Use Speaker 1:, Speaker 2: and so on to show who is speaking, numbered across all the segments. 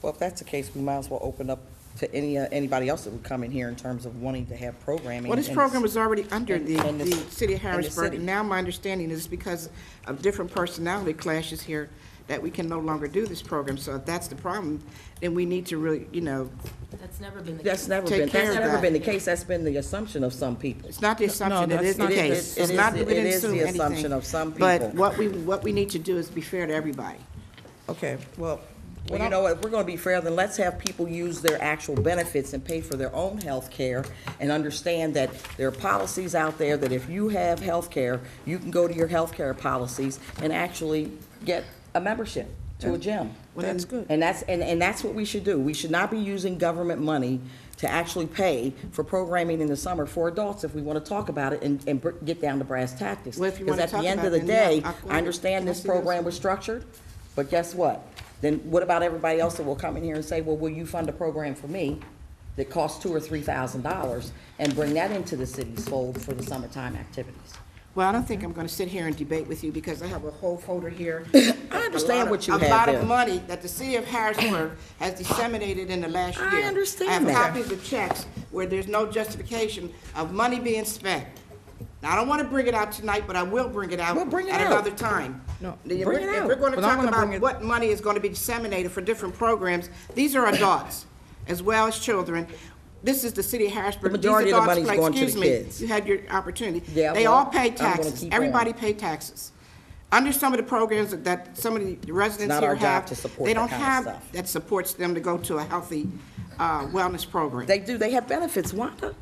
Speaker 1: Well, if that's the case, we might as well open up to any, uh, anybody else that would come in here in terms of wanting to have programming.
Speaker 2: Well, this
Speaker 1: and
Speaker 2: program
Speaker 1: it's-
Speaker 2: is already under the,
Speaker 1: and
Speaker 2: the
Speaker 1: it's-
Speaker 2: city of
Speaker 1: and the
Speaker 2: Harrisburg,
Speaker 1: city.
Speaker 2: and now my understanding is because of different personality clashes here, that we can no longer do this program, so if that's the problem, then we need to really, you know,
Speaker 3: That's never been the
Speaker 1: That's
Speaker 3: case.
Speaker 1: never
Speaker 2: Take
Speaker 1: been,
Speaker 2: care
Speaker 1: that's
Speaker 2: of
Speaker 1: never
Speaker 2: that.
Speaker 1: been the case, that's been the assumption of some people.
Speaker 2: it's not the assumption, it
Speaker 4: that's
Speaker 2: is the
Speaker 4: not- It
Speaker 2: case.
Speaker 1: is- it
Speaker 2: It's
Speaker 1: is
Speaker 2: not,
Speaker 1: the-
Speaker 2: we didn't
Speaker 1: it is the
Speaker 2: assume anything.
Speaker 1: assumption of some
Speaker 2: But
Speaker 1: people.
Speaker 2: what we, what we need to do is be fair to everybody.
Speaker 4: Okay, well,
Speaker 1: Well, you know what, if we're gonna be fair, then let's have people use their actual benefits and pay for their own health care and understand that there are policies out there that if you have health care, you can go to your health care policies and actually get a membership to a gym.
Speaker 2: Well, that's good.
Speaker 1: And that's, and, and that's what we should do. We should not be using government money to actually pay for programming in the summer for adults if we want to talk about it and, and br- get down to brass tactics.
Speaker 2: Well, if you wanna
Speaker 1: Because at
Speaker 2: talk
Speaker 1: the end
Speaker 2: about
Speaker 1: of the
Speaker 2: it, then yeah,
Speaker 1: day,
Speaker 2: I'll go
Speaker 1: I understand
Speaker 2: ahead.
Speaker 1: this
Speaker 2: Can I see this?
Speaker 1: program was structured, but guess what? Then what about everybody else that will come in here and say, well, will you fund a program for me that costs two or three thousand dollars and bring that into the city's fold for the summertime activities?
Speaker 2: Well, I don't think I'm gonna sit here and debate with you, because I have a whole folder here.
Speaker 1: I understand what you
Speaker 2: A
Speaker 1: have
Speaker 2: lot
Speaker 1: there.
Speaker 2: of money that the city of Harrisburg has disseminated in the last year.
Speaker 1: I understand
Speaker 2: I
Speaker 1: that.
Speaker 2: have copies of checks where there's no justification of money being spent. Now, I don't wanna bring it out tonight, but I will bring it out
Speaker 1: Well, bring it
Speaker 2: at
Speaker 1: out.
Speaker 2: another time.
Speaker 4: No,
Speaker 2: If
Speaker 1: bring it
Speaker 2: we're- If
Speaker 1: out.
Speaker 2: we're gonna
Speaker 4: But I'm
Speaker 2: talk
Speaker 4: gonna
Speaker 2: about
Speaker 4: bring it-
Speaker 2: what money is gonna be disseminated for different programs, these are adults as well as children. This is the city of Harrisburg.
Speaker 1: The
Speaker 2: These
Speaker 1: majority of the
Speaker 2: adults,
Speaker 1: money's
Speaker 2: like,
Speaker 1: going to the
Speaker 2: excuse me,
Speaker 1: kids.
Speaker 2: You had your opportunity.
Speaker 1: Yeah,
Speaker 2: They
Speaker 1: well,
Speaker 2: all
Speaker 1: I'm
Speaker 2: pay
Speaker 1: gonna
Speaker 2: taxes.
Speaker 1: keep
Speaker 2: Everybody pay taxes. Under some of the programs that some of the residents
Speaker 1: not
Speaker 2: here
Speaker 1: our job
Speaker 2: have,
Speaker 1: to support
Speaker 2: they
Speaker 1: that
Speaker 2: don't
Speaker 1: kind of
Speaker 2: have,
Speaker 1: stuff.
Speaker 2: that supports them to go to a healthy uh, wellness program.
Speaker 1: They do, they have benefits, Wanda.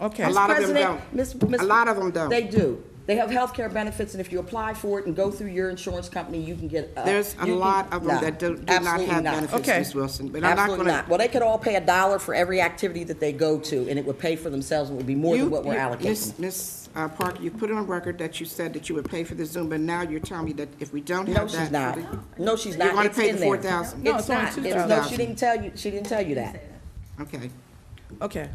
Speaker 4: okay.
Speaker 2: A lot of them
Speaker 1: President,
Speaker 2: don't.
Speaker 1: Miss-
Speaker 2: A
Speaker 1: Miss-
Speaker 2: lot of them don't.
Speaker 1: They do. They have health care benefits, and if you apply for it and go through your insurance company, you can get. uh,
Speaker 2: There's a
Speaker 1: you can-
Speaker 2: lot of them
Speaker 1: No,
Speaker 2: that do do not
Speaker 1: absolutely
Speaker 2: have benefits,
Speaker 4: Okay.
Speaker 2: Ms. Wilson. But I'm not
Speaker 1: Absolutely
Speaker 2: gonna.
Speaker 1: not. Well, they could all pay a dollar for every activity that they go to, and it would pay for themselves, and it would be more than
Speaker 2: You-
Speaker 1: what we're
Speaker 2: you-
Speaker 1: allocating.
Speaker 2: Ms. Ms. uh, Parker, you put it on record that you said that you would pay for the Zoom, but now you're telling me that if we don't
Speaker 1: No,
Speaker 2: have that.
Speaker 1: she's not. No, she's not.
Speaker 2: You're gonna
Speaker 1: It's
Speaker 2: pay
Speaker 1: in
Speaker 2: the
Speaker 1: there.
Speaker 2: 4,000.
Speaker 4: No,
Speaker 1: It's
Speaker 4: it's only
Speaker 1: not. It's- No,
Speaker 2: 2,000.
Speaker 1: she didn't tell you, she didn't tell you that.
Speaker 2: Okay.
Speaker 4: Okay,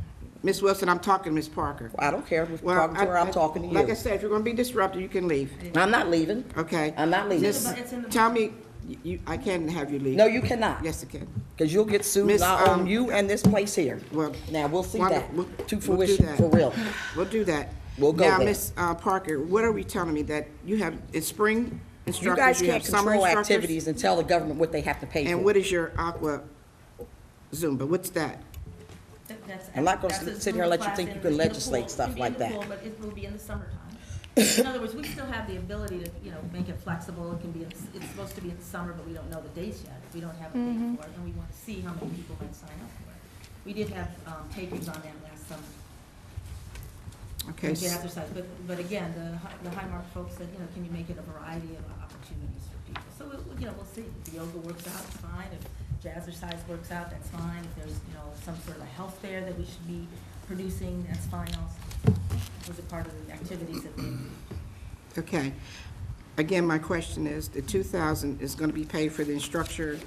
Speaker 2: Ms. Wilson, I'm talking to Ms. Parker.
Speaker 1: I don't care. If we're
Speaker 2: Well,
Speaker 1: talking to her,
Speaker 2: I-
Speaker 1: I'm talking to
Speaker 2: Like I
Speaker 1: you.
Speaker 2: said, if you're gonna be disruptive, you can leave,
Speaker 1: I'm not leaving.
Speaker 2: okay?
Speaker 1: I'm not leaving.
Speaker 2: Just
Speaker 3: It's in the-
Speaker 2: tell me, you- you, I can have you leave.
Speaker 1: No, you cannot.
Speaker 2: Yes, I can.
Speaker 1: Because you'll get sued
Speaker 2: Miss,
Speaker 1: not on
Speaker 2: um,
Speaker 1: you and this place here.
Speaker 2: Well.
Speaker 1: Now, we'll see
Speaker 2: wonder-
Speaker 1: that
Speaker 2: we'll- we'll
Speaker 1: to
Speaker 2: do
Speaker 1: fruition,
Speaker 2: that.
Speaker 1: for real.
Speaker 2: We'll do that.
Speaker 1: We'll go
Speaker 2: Now,
Speaker 1: there.
Speaker 2: Ms. uh, Parker, what are we telling me, that you have, it's spring
Speaker 1: You guys
Speaker 2: instructors, you
Speaker 1: can't
Speaker 2: have summer
Speaker 1: control
Speaker 2: instructors?
Speaker 1: activities and tell the government what they have to pay
Speaker 2: And
Speaker 1: for.
Speaker 2: what is your aqua Zumba? What's that?
Speaker 3: That- that's-
Speaker 1: I'm not gonna
Speaker 3: that's a
Speaker 1: sit here and let you
Speaker 3: Zumba
Speaker 1: think you
Speaker 3: class
Speaker 1: can
Speaker 3: in the- in the
Speaker 1: legislate
Speaker 3: pool.
Speaker 1: stuff
Speaker 3: It'd be
Speaker 1: like
Speaker 3: in the
Speaker 1: that.
Speaker 3: pool, But it will be in the summertime. In other words, we still have the ability to, you know, make it flexible. It can be, in- it's supposed to be in the summer, but we don't know the dates yet. We don't have a date for it, and we want to see how many people might sign up for it. We did have um, takers on that last summer.
Speaker 2: Okay,
Speaker 3: We did
Speaker 2: s-
Speaker 3: exercise, but, but again, the, Hi- the Highmark folks said, you know, can you make it a variety of opportunities for people? So, we'll- you know, we'll see. If the yoga works out, fine. If jazzercise works out, that's fine. If there's, you know, some sort of a health fair that we should be producing, that's fine also. Those are part of the activities that they do.
Speaker 2: okay. Again, my question is, the two thousand is gonna be paid for the instructor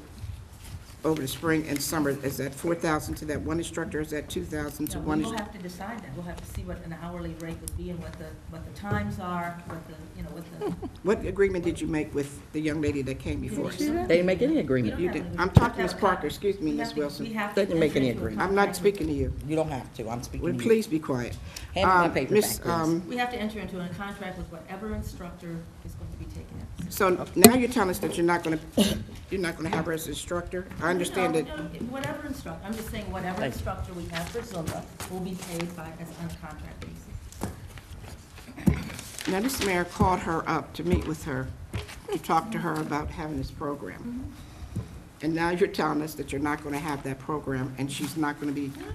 Speaker 2: over the spring and summer. Is that four thousand to that one instructor, is that two thousand to
Speaker 3: Now,
Speaker 2: one?
Speaker 3: We'll
Speaker 2: instru-
Speaker 3: have to decide that. We'll have to see what an hourly rate would be and what the, what the times are, what the, you know, what the.
Speaker 2: What agreement did you make with the young lady that came before us?
Speaker 1: They didn't make any agreement.
Speaker 2: You did- I'm talking to Ms. Parker. Excuse me, Ms. Wilson.
Speaker 1: They didn't make any agreement.
Speaker 2: I'm not speaking to you.
Speaker 1: You don't have to, I'm speaking
Speaker 2: Well,
Speaker 1: to you.
Speaker 2: Please be quiet.
Speaker 1: Mm. Hand me my
Speaker 2: Uh,
Speaker 1: paper
Speaker 2: Miss,
Speaker 1: back, please.
Speaker 2: um,
Speaker 3: We have to enter into a contract with whatever instructor is going to be taking it.
Speaker 2: So now you're telling us that you're not gonna, you're not gonna have her as instructor? I understand
Speaker 3: No,
Speaker 2: that,
Speaker 3: no, Whatever instructor, I'm just saying whatever
Speaker 1: Thank you.
Speaker 3: instructor we have for Zumba will be paid by, as on a contract basis.
Speaker 2: now this mayor called her up to meet with her, to talk to her about having this program. And now you're telling us that you're not gonna have that program, and she's not gonna be,
Speaker 3: No, no, no,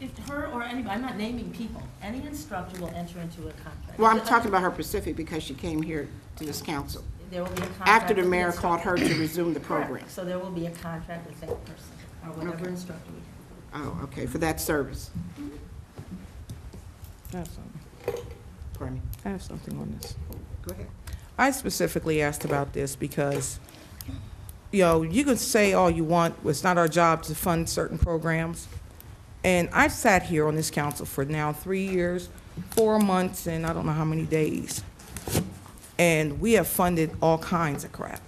Speaker 3: i- if her or anybody, I'm not naming people, any instructor will enter into a contract.
Speaker 2: well, I'm talking about her Pacific because she came here to this council.
Speaker 3: There will be a contract.
Speaker 2: After the
Speaker 3: with
Speaker 2: mayor
Speaker 3: instructor.
Speaker 2: called her to resume the program.
Speaker 3: Correct. So there will be a contract with that person, or whatever instructor we have.
Speaker 2: Oh, okay, for that service.
Speaker 4: I have something,
Speaker 2: Pardon me.
Speaker 4: I have something on this.
Speaker 2: Go ahead.
Speaker 4: I specifically asked about this because, you know, you can say all you want, it's not our job to fund certain programs. And I've sat here on this council for now three years, four months, and I don't know how many days. And we have funded all kinds of crap.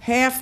Speaker 4: Half